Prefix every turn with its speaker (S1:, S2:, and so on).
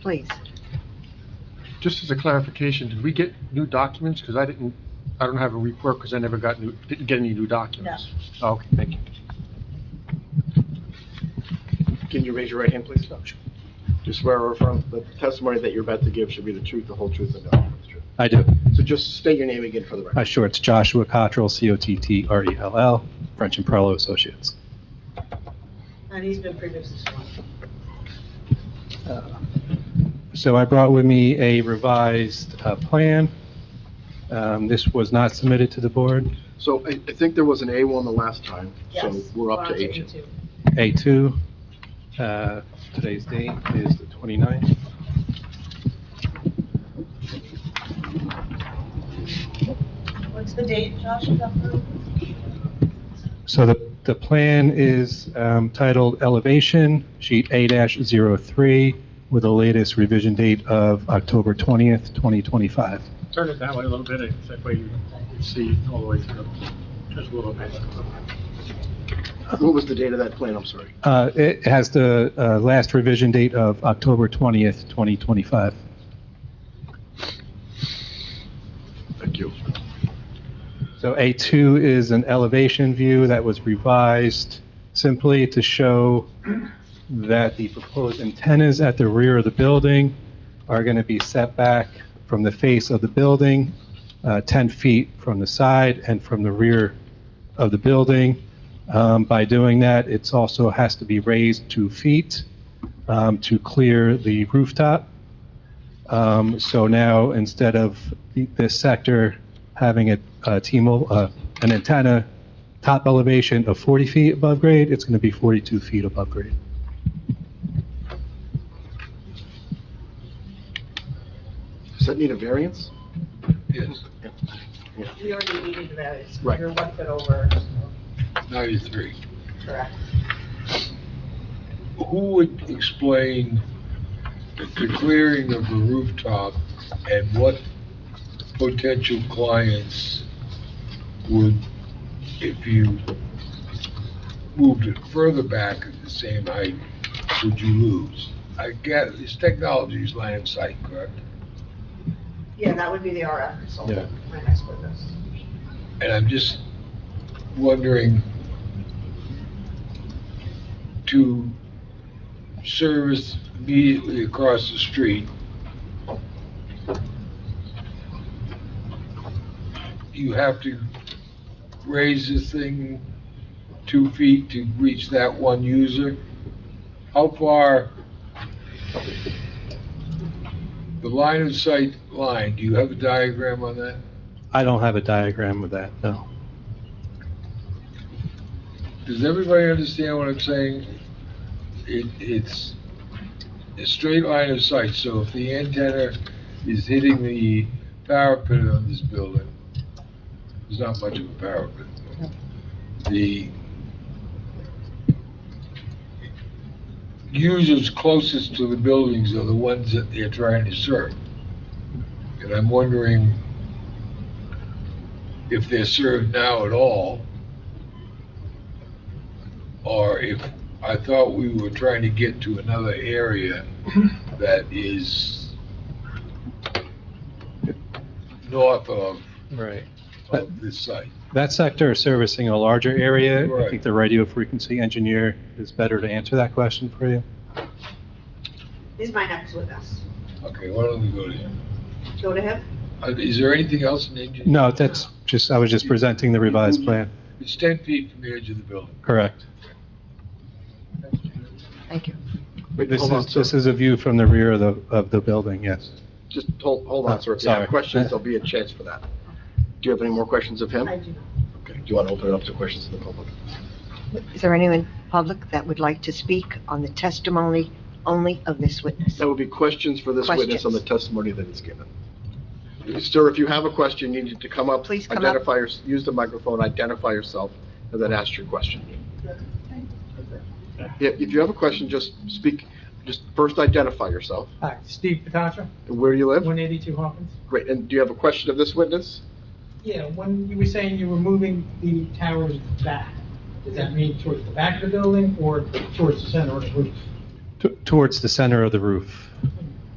S1: please.
S2: Just as a clarification, did we get new documents? Because I didn't, I don't have a report because I never got new, didn't get any new documents. No. Okay, thank you.
S3: Can you raise your right hand, please? Just swear or affirm the testimony that you're about to give should be the truth, the whole truth, and nothing but the truth.
S4: I do.
S3: So just state your name again for the
S4: Uh,
S3: record.
S4: Sure, it's Joshua Cottrell, C-O-T-T-R-E-L-L, E French and Perlo Associates.
S1: And he's been previously sworn.
S4: Uh, So I brought with me a revised uh, plan. Um, This was not submitted to the board.
S3: So I, I think there was an A1 the last time, so
S1: Yes,
S3: we're up to
S1: on
S3: H.
S1: A2.
S4: A2, uh, today's date is the 29th.
S1: What's the date, Josh? of that vote?
S4: So the, the plan is um, titled Elevation, Sheet A-03, with the latest revision date of October 20th, 2025.
S5: Turn it that way a little bit, it's that way you can see all the way through, just a little bit.
S3: What was the date of that plan? I'm sorry.
S4: Uh, It has the uh, last revision date of October 20th, 2025.
S3: Thank you.
S4: So A2 is an elevation view that was revised simply to show that the proposed antennas at the rear of the building are going to be set back from the face of the building, uh, 10 feet from the side and from the rear of the building. Um, By doing that, it's also has to be raised two feet um, to clear the rooftop. Um, So now, instead of the- this sector having a, a T-Mobile, uh, an antenna top elevation of 40 feet above grade, it's going to be 42 feet above grade.
S3: Does that need a variance?
S6: Yes,
S1: We already needed the variance.
S3: Right.
S1: You're one foot over, so,
S6: 93.
S1: correct.
S6: Who would explain the clearing of the rooftop and what potential clients would, if you moved it further back at the same height, would you lose? I guess this technology is line of sight, correct?
S1: Yeah, that would be the RF consultant, my next witness.
S6: And I'm just wondering, to service immediately across the street, you have to raise this thing two feet to reach that one user? How far the line of sight line, do you have a diagram on that?
S4: I don't have a diagram of that, no.
S6: Does everybody understand what I'm saying? It, it's a straight line of sight, so if the antenna is hitting the parapet on this building, there's not much of a parapet. The users closest to the buildings are the ones that they're trying to serve. And I'm wondering if they're served now at all, or if, I thought we were trying to get to another area that is north of,
S4: Right.
S6: of this site.
S4: That sector is servicing a larger area. I
S6: Right.
S4: think the radio frequency engineer is better to answer that question for you.
S1: He's my next witness.
S6: Okay, why don't we go to him?
S1: Go to him.
S6: Uh, Is there anything else in the engineer?
S4: No, that's just, I was just presenting the revised plan,
S6: It's ten feet from the edge of the building.
S4: correct.
S1: Thank you.
S3: Wait,
S4: This
S3: hold on,
S4: is,
S3: sir.
S4: this is a view from the rear of the, of the building, yes.
S3: Just hold, hold on, sir. If you
S4: Oh, Sorry.
S3: have questions, there'll be a chance for that. Do you have any more questions of him?
S1: I do not.
S3: Okay. Do you want to open it up to questions of the public?
S1: Is there anyone in public that would like to speak on the testimony only of this witness?
S3: That would be questions for this witness on the
S1: Questions.
S3: testimony that he's given. Sir, if you have a question, you need to come up.
S1: Please come up.
S3: identify your- Use the microphone, identify yourself, and then ask your question. Yeah, If you have a question, just speak, just first identify yourself.
S7: Hi, Uh, Steve Patatra,
S3: and Where do you live?
S7: 182 Hawkins.
S3: Great, and do you have a question of this witness?
S7: Yeah, when you were saying you were moving the towers back, does that mean towards the back of the building or towards the center of the roof?
S4: T- Towards the center of the roof.